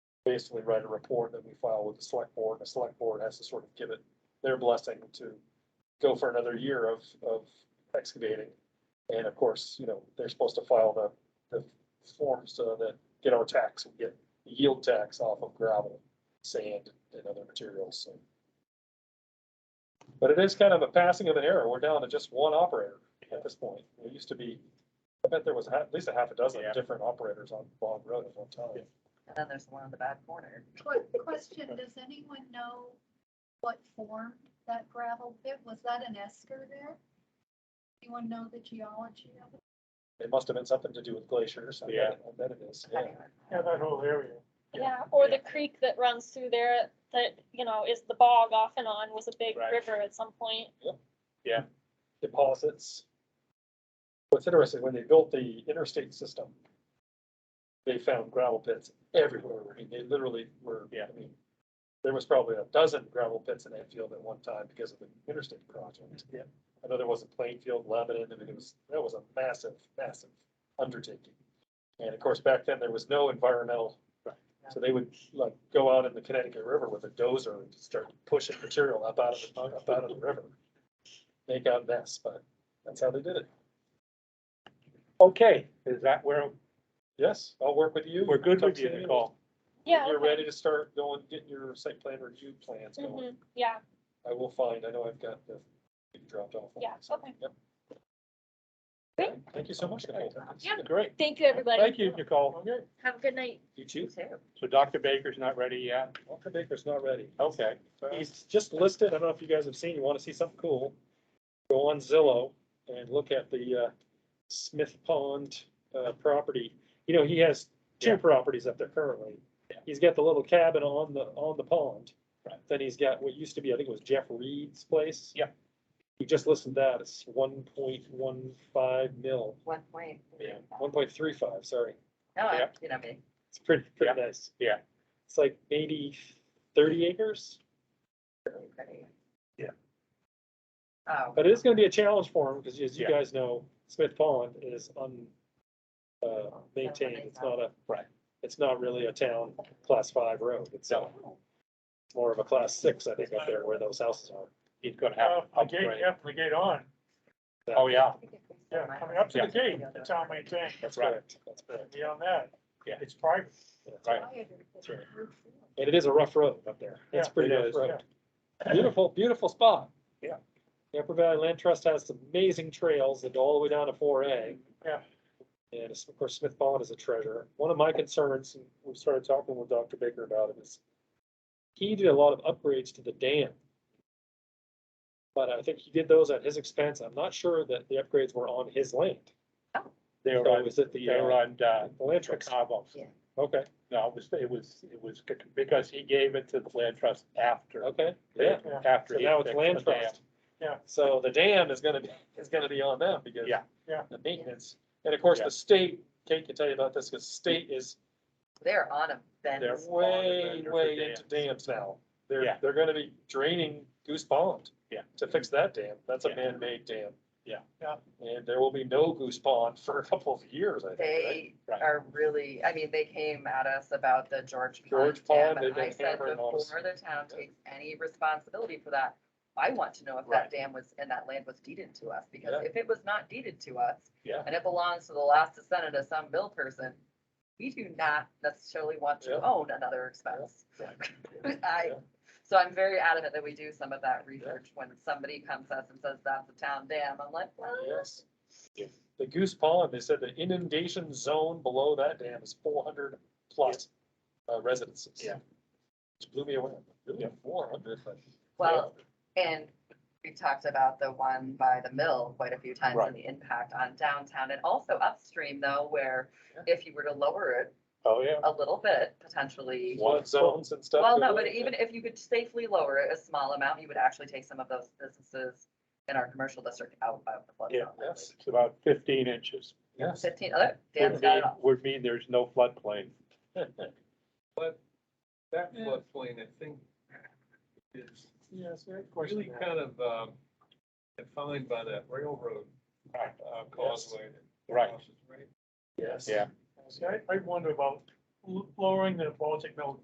basically write a report that we file with the select board, and the select board has to sort of give it their blessing to go for another year of, of excavating. And of course, you know, they're supposed to file the, the forms uh, that get our tax, we get yield tax off of gravel, sand, and other materials, so. But it is kind of a passing of an era, we're down to just one operator at this point, it used to be, I bet there was a ha- at least a half a dozen Yeah. different operators on Bog Road at one time. And then there's the one in the back corner. Quick question, does anyone know what form that gravel pit, was that an esker there? Anyone know the geology of it? It must have been something to do with glaciers. I bet- Yeah. I bet it is, yeah. Anyway, Yeah, that whole area. Yeah, or the creek that runs through there that, you know, is the bog off and on was a big Right. river at some point. Deposits. What's interesting, when they built the interstate system, they found gravel pits everywhere. I mean, they literally were, Yeah. I mean, there was probably a dozen gravel pits in Enfield at one time because of the interstate project. Yeah. I know there was a Plainfield, Lebanon, and it was, that was a massive, massive undertaking. And of course, back then, there was no environmental. So they would like go out in the Connecticut River with a dozer and start pushing material up out of, the up out of the river. They got a mess, but that's how they did it. Okay, is that where, Yes, I'll work with you. we're good with you, Talk to Nicole? Yeah. You're okay. ready to start going, getting your site plan review plans going. Mhm, Yeah, I will find, I know I've got the, you dropped off. on Yeah, it, so, okay. yep. Great. Okay, Thank you so much, Nicole. Yeah. Great. thank you, everybody. Thank you, Nicole. Okay, Have a good night. you too. So Dr. Baker's not ready yet? Walker Baker's not ready. Okay. He's just listed, I don't know if you guys have seen, you wanna see something cool, go on Zillow and look at the, uh, Smith Pond, uh, property. You know, he has two Yeah. properties up there currently. He's got the little cabin on the, on the pond. Right. Then he's got what used to be, I think it was Jeff Reed's place. Yeah. He just listed that, it's one point one five mil, One point. Yeah. one point three five, sorry. No, I, Yep. you know me. It's pretty, pretty Yeah. nice. Yeah. It's like maybe thirty acres. Really pretty. Yeah. Oh, But it is gonna be a challenge for him, because as you Yeah. guys know, Smith Pond is un, uh, maintained, it's not a. Right. It's not really a town class five road, it's uh, more of a class six, I think, up there where those houses are. He's gonna have. to Uh, the gate, upgrade. yeah, the gate on, Oh, yeah. I think if we sell yeah, mine, coming up to Yeah. the gate, the town maintained, That's Right. correct. That's correct. beyond um, that, Yeah. it's private. Yeah. Right. That's right. And it is a rough road up there. It's Yeah, pretty it rough is, road. Beautiful, beautiful spot. Yeah. The Upper Valley Land Trust has some amazing trails that go all the way down to four A. Yeah. And it's- of course, Smith Pond is a treasure. One of my concerns, and we started talking with Dr. Baker about it, is he did a lot of upgrades to the dam. But I think he did those at his expense. I'm not sure that the upgrades were on his land. They were So on, was it the, they were uh, on, uh, the land trust? Chicago. Yeah. Okay, No, it was, it was, it was c- because he gave it to the land trust after. okay, yeah. Yeah. After. So he now it's fixed land the dam. trust. Yeah. So the dam is gonna be, is gonna be on them because. Yeah. Yeah. The maintenance, and of course, Yeah. the state, Kate can tell you about this, because state is, They're on a they're bend. way, under for way into dams now. They're, Yeah. they're gonna be draining Goose Pond. Yeah. To fix that dam, that's a Yeah. man-made dam. Yeah. Yeah. And there will be no Goose Pond for a couple of years, I think, right? They Right. are really, I mean, they came at us about the George Pond George Dam, Pond, they've and I been said hammering all this- before the town takes any responsibility for that, I want to know if Right. that dam was, and that land was deeded to us, because Yeah. if it was not deeded to us, Yeah. and it belongs to the last descendant of some bill person, we do not necessarily want Yeah. to own another expense. Right. I, Yeah. so I'm very adamant that we do some of that research when somebody comes to us and says that's a town dam, I'm like, well, Yes. The Goose Pond, they said the inundation zone below that dam is four hundred plus uh, residences. Yeah. Which blew me away. Really, four hundred, but. well, and we've talked about the one by the mill quite a few times Right. and the impact on downtown and also upstream though, where if you were to lower it Oh, yeah. a little bit, potentially. Flood zones and stuff. Well, go no, but in. even if you could safely lower it a small amount, you would actually take some of those businesses in our commercial district out of the flood Yeah, zone. Yes, It's about fifteen inches. yes. Fifteen, oh, Dan's Would got mean, it all. would mean there's no floodplain. That Yeah. floodplain, I think, is Yes, we had a really question. kind of um, defined by that railroad Right. uh, causeway. that Right. crosses right Yes. Yeah. See, I, I wonder about l- lowering the Baltic Mill